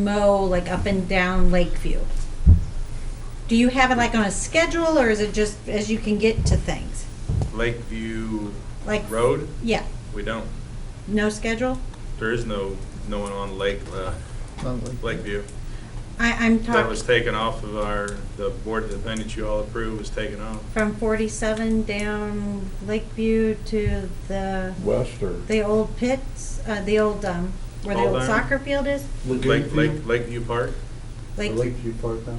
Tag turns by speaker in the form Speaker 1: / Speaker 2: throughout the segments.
Speaker 1: mow like up and down Lakeview? Do you have it like on a schedule or is it just as you can get to things?
Speaker 2: Lakeview
Speaker 1: Like-
Speaker 2: Road,
Speaker 1: Yeah,
Speaker 2: we don't,
Speaker 1: no schedule?
Speaker 2: there is no, no one on Lake, uh, Lakeview.
Speaker 1: I, I'm
Speaker 2: That was
Speaker 1: talking
Speaker 2: taken off of our, the board, the thing that you all approved was taken off.
Speaker 1: from forty-seven down Lakeview to the,
Speaker 3: West or?
Speaker 1: the old pits, uh, the old, um, where the
Speaker 2: Old
Speaker 1: old
Speaker 2: Iron?
Speaker 1: soccer field is?
Speaker 2: Lake, Lake, Lakeview Park.
Speaker 1: Lake, is
Speaker 3: Lakeview Park now?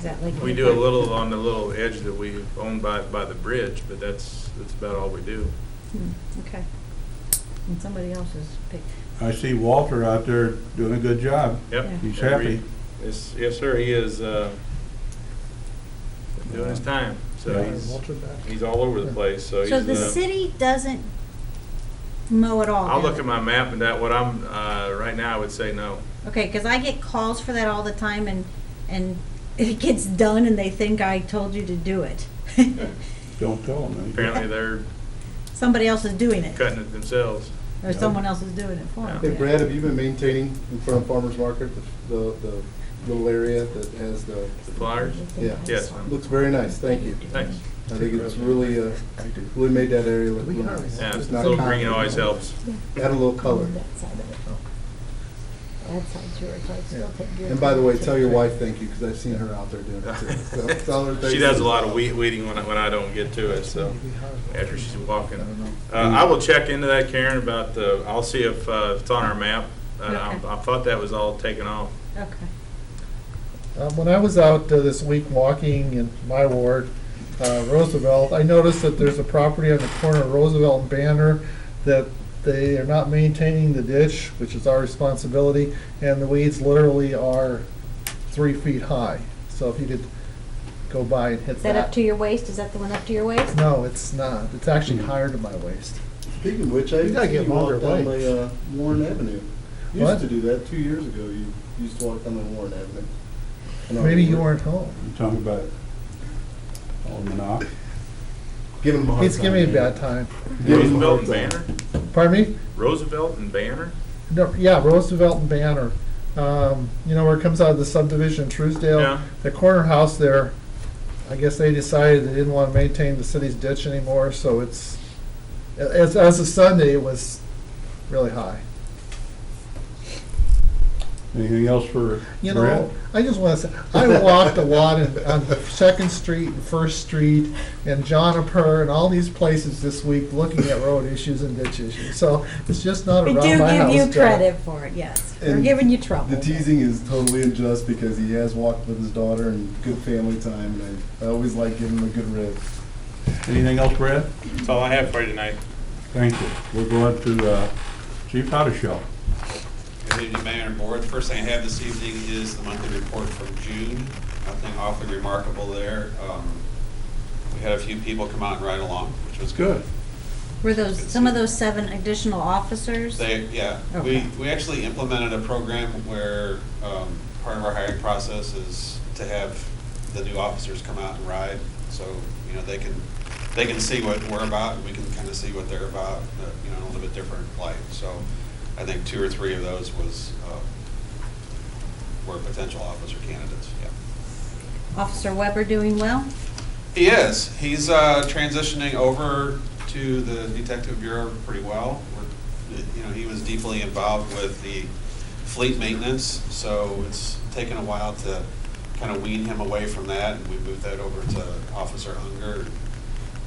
Speaker 1: that Lakeview?
Speaker 2: We do a little on the little edge that we own by, by the bridge, but that's, that's about all we do.
Speaker 1: Hmm, Okay. And somebody else's pic.
Speaker 3: I see Walter out there doing a good job.
Speaker 2: Yep.
Speaker 3: He's
Speaker 2: Every-
Speaker 3: happy.
Speaker 2: Yes, yes, sir, he is, uh, doing his time, so he's, he's all over the place, so he's.
Speaker 1: So the
Speaker 2: uh,
Speaker 1: city doesn't mow at all?
Speaker 2: I'll
Speaker 1: does
Speaker 2: look
Speaker 1: it?
Speaker 2: at my map and that, what I'm, uh, right now, I would say no.
Speaker 1: Okay, because I get calls for that all the time, and, and it gets done, and they think I told you to do it.
Speaker 3: Don't tell him. anything.
Speaker 2: Apparently, they're
Speaker 1: Somebody else is doing it,
Speaker 2: cutting it themselves.
Speaker 1: or someone else is doing it for them.
Speaker 4: Hey Brad, have you been maintaining in front of Farmers Market, the, the little area that has the,
Speaker 2: The flyers?
Speaker 4: Yeah.
Speaker 2: Yes, ma'am.
Speaker 4: looks very nice, thank you.
Speaker 2: Thanks.
Speaker 4: I think it's really, uh, really made that area look look nice.
Speaker 2: Yeah, a
Speaker 4: It's not
Speaker 2: little green
Speaker 4: concrete.
Speaker 2: always helps.
Speaker 4: Add a little color. Oh.
Speaker 5: That side of it. That side's yours, I'd still take yours.
Speaker 4: And by the way, tell your wife thank you, because I've seen her out there doing it too. So, it's all her
Speaker 2: She
Speaker 4: thanks.
Speaker 2: does a lot of weed, weeding when I, when I don't get to it, so, after she's walking. Uh, I will check into that, Karen, about the, I'll see if, uh, if it's on our map. Uh,
Speaker 1: Okay.
Speaker 2: I, I thought that was all taken off.
Speaker 1: Okay.
Speaker 6: Um, When I was out uh, this week walking in my ward, uh, Roosevelt, I noticed that there's a property on the corner of Roosevelt and Banner that they are not maintaining the ditch, which is our responsibility, and the weeds literally are three feet high. So if you could go by and hit
Speaker 5: Is
Speaker 6: that.
Speaker 5: that up to your waist? Is that the one up to your waist?
Speaker 6: No, it's not. It's actually higher to my waist.
Speaker 4: Speaking of which, I
Speaker 6: You
Speaker 4: used
Speaker 6: gotta
Speaker 4: to
Speaker 6: get
Speaker 4: see you walk
Speaker 6: longer
Speaker 4: down
Speaker 6: legs.
Speaker 4: by, uh, Warren Avenue. You
Speaker 6: What?
Speaker 4: used to do that, two years ago, you used to walk down the Warren Avenue. And I
Speaker 6: Maybe you
Speaker 4: would
Speaker 6: weren't home.
Speaker 3: You talking about Alderman Ock?
Speaker 4: Give him a hard time.
Speaker 6: He's giving me a bad time.
Speaker 4: Give him a
Speaker 2: Roosevelt and
Speaker 4: hard time.
Speaker 2: Banner?
Speaker 6: Pardon me?
Speaker 2: Roosevelt and Banner?
Speaker 6: No, yeah, Roosevelt and Banner. Um, you know where it comes out of the subdivision in Truesdale?
Speaker 2: Yeah.
Speaker 6: The corner house there, I guess they decided they didn't want to maintain the city's ditch anymore, so it's, as, as of Sunday, it was really high.
Speaker 3: Anything else for
Speaker 6: You
Speaker 3: Brad?
Speaker 6: know, I just want to say, I walked a lot in, on Second Street and First Street and John Apur and all these places this week looking at road issues and ditch issues. So it's just not
Speaker 1: We
Speaker 6: around
Speaker 1: do
Speaker 6: my
Speaker 1: give
Speaker 6: house.
Speaker 1: you
Speaker 6: Joe.
Speaker 1: credit for it, yes. We're
Speaker 4: And
Speaker 1: giving you trouble.
Speaker 4: The teasing is totally unjust because he has walked with his daughter and good family time, and I, I always like giving him a good rib.
Speaker 3: Anything else, Brad?
Speaker 2: That's all I have for you tonight.
Speaker 3: Thank you. We're going to uh, Chief Hottishell.
Speaker 7: Good evening, Mayor and Board. First thing I have this evening is the monthly report from June. Nothing awfully remarkable there. Um, We had a few people come out and ride along, which was good.
Speaker 1: Were those, some of those seven additional officers?
Speaker 7: They, yeah, we,
Speaker 1: Okay.
Speaker 7: we actually implemented a program where um, part of our hiring process is to have the new officers come out and ride. So, you know, they can, they can see what we're about, and we can kind of see what they're about, uh, you know, in a little bit different light. So I think two or three of those was, uh, were potential officer candidates, yeah.
Speaker 1: Officer Weber doing well?
Speaker 7: He is. He's uh, transitioning over to the detective bureau pretty well. We're, you know, he was deeply involved with the fleet maintenance, so it's taken a while to kind of wean him away from that, and we moved that over to Officer Unger.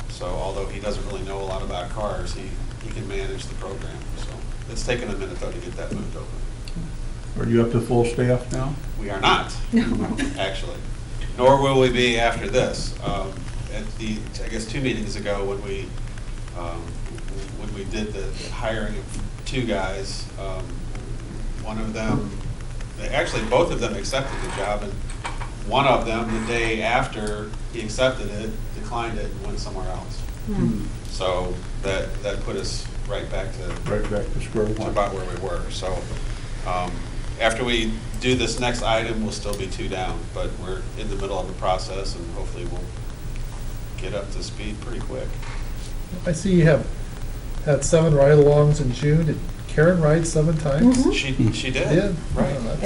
Speaker 7: So although he doesn't really know a lot about cars, he, he can manage the program. So it's taken a minute though to get that moved over.
Speaker 3: Are you up to full staff now?
Speaker 7: We are not, actually. Nor will we be after this. Um, At the, I guess, two meetings ago, when we, um, when we did the hiring of two guys, um, one of them, they- actually, both of them accepted the job, and one of them, the day after he accepted it, declined it and went somewhere else.
Speaker 1: Hmm.
Speaker 7: So that, that put us right back to
Speaker 3: Right back to square
Speaker 7: it's
Speaker 3: one.
Speaker 7: about where we were. So um, after we do this next item, we'll still be two down, but we're in the middle of the process and hopefully we'll get up to speed pretty quick.
Speaker 6: I see you have had seven ride-alongs in June. Did Karen ride seven times?
Speaker 7: Mm-hmm. Hmm.
Speaker 1: Mhm.
Speaker 7: She, she did.
Speaker 6: Did? Oh,
Speaker 7: Right.